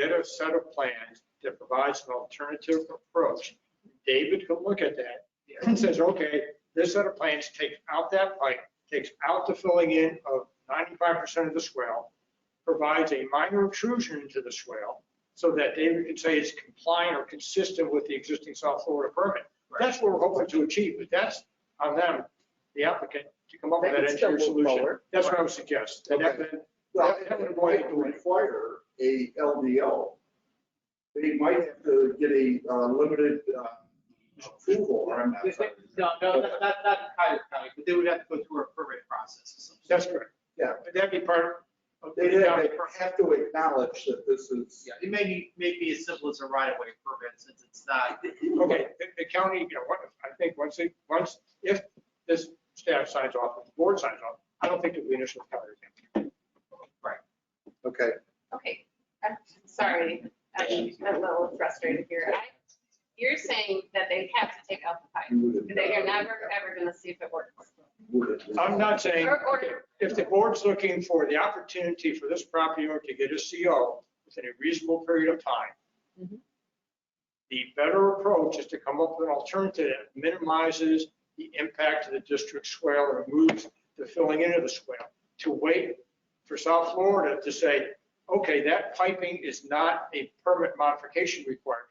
a set of plans that provides an alternative approach. David can look at that. and says, okay, this set of plans takes out that pipe, takes out the filling in of 95% of the swell, provides a minor intrusion into the swell so that David can say it's compliant or consistent with the existing South Florida permit. That's what we're hoping to achieve, but that's on them, the applicant, to come up with They that can still engineer move solution. forward. That's what I would suggest. And that- Well, that- that would it avoid might the delay. require a LDO. They might have to get a uh, limited uh, approval or I'm not. No, no, not, not not in Cuyahoga County, but they would have to go through a permit process or something. That's correct. Yeah. But that'd be part of. They have have to acknowledge that this is, Yeah, it may be, may be as simple as a right of way permit since it's not. Okay, the- the county, you know, what, I think once they, once, if this staff signs off, if the board signs off, I don't think it'll be an issue with county. okay. Okay, I'm sorry, I'm a little frustrated here. I- You're saying that they have to take out the pipe, you would- they are never, ever gonna see if it works. would- I'm not saying, Or- or- if the board's looking for the opportunity for this property owner to get a CO within a reasonable period of time, Mhm. the better approach is to come up with an alternative that minimizes the impact of the district swale or moves the filling into the swale. To wait for South Florida to say, okay, that piping is not a permit modification requirement,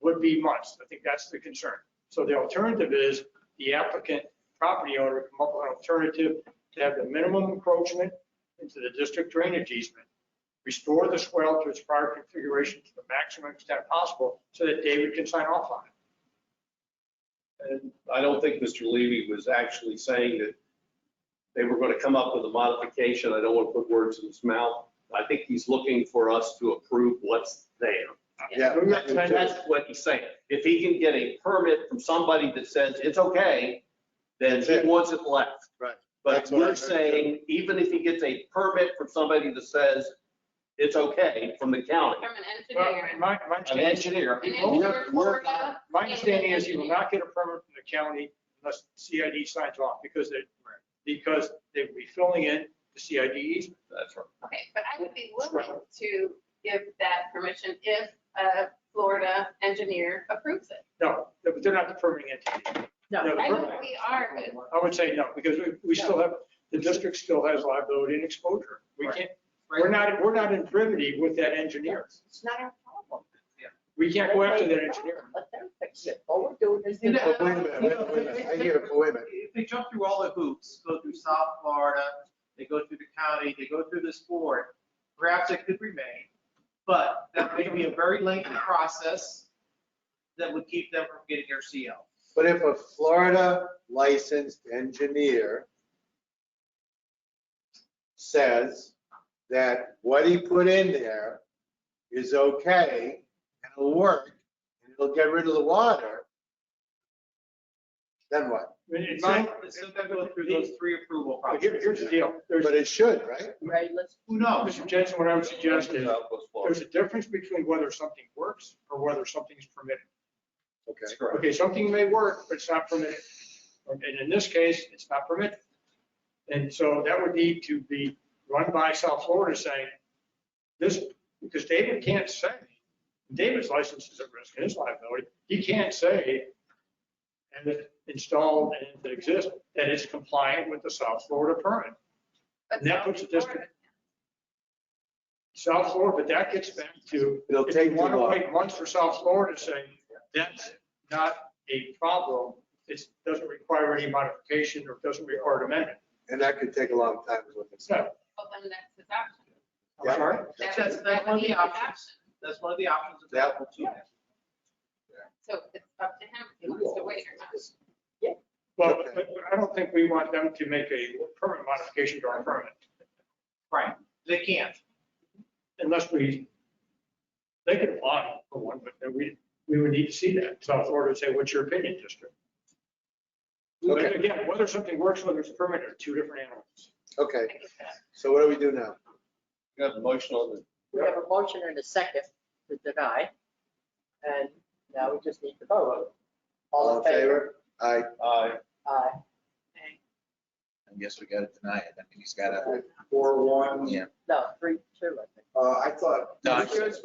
would be months. I think that's the concern. So the alternative is the applicant, property owner, come up with an alternative to have the minimum encroachment into the district drainage easement, restore the swell to its prior configuration to the maximum extent possible so that David can sign off on it. And I don't think Mr. Levy was actually saying that they were going to come up with a modification. I don't want to put words in his mouth. I think he's looking for us to approve what's there. Yeah. We recommend That's that- what he's saying. If he can get a permit from somebody that says it's okay, then That's he it. wants it left. Right. But That's what I we're heard, too. saying, even if he gets a permit from somebody that says it's okay from the county, From an Well, engineer. my, my an understanding, engineer, An he won't- engineer for the- my understanding is you will not get a permit from the county unless CID signs off because they, because they will be filling in the CID easement. that's right. Okay, but I would be willing to give that permission if a Florida engineer approves it. No, they're they're not the permitting entity. No. They're the I know permitting. we are, but I would say no, because we, we still have, the district still has liability and exposure. We Right. can't, we're not, we're not in privity with that engineer. It's not our problem. We can't go after that engineer. Let them fix it. All we're doing is. You know, But wait a minute, wait a minute, I hear, wait a minute. uh, If they jump through all the hoops, go through South Florida, they go through the county, they go through this board, perhaps it could remain. But that may be a very lengthy process that would keep them from getting their CO. But if a Florida licensed engineer says that what he put in there is okay and it'll work and it'll get rid of the water, then what? In my, So, so they go through those three approval here- processes. here's the deal. There's, But it should, right? Right, let's. Who knows? Mr. Jensen, what I would suggest is, There's there's a difference between whether something works or whether something's permitted. Okay. Okay, something may work, but it's not permitted. And in this case, it's not permitted. And so that would need to be run by South Florida saying, this, because David can't say, David's license is at risk and his liability. He can't say, and it's installed and it exists, that it's compliant with the South Florida permit. but And that puts South the district- South Florida, but that gets back to It'll if you take too want to long. wait months for South Florida to say, that's not a problem, it doesn't require any modification or doesn't require amendment. And that could take a long time. is what they So, said. Well, then that's his option. I'm sorry, That- That's- that's that one of would the be his options. option. That's one of the options. That- available to them. So it's up to him if he wants to wait or not. well, but I don't think we want them to make a permanent modification to our permit Right, they can't. unless we, they could apply for one, but then we, we would need to see that. South Florida would say, what's your opinion, district? But Okay. again, whether something works, whether it's permanent, are two different animals. Okay, I get that. so what do we do now? Got a motion on the We have a motion and a second to deny. And now we just need to vote. All in favor? Aye. Aye. Aye. I guess we gotta deny it. I mean, he's gotta, Four, one, yeah. No, three, two, I think. uh, I thought. No, I- Insurance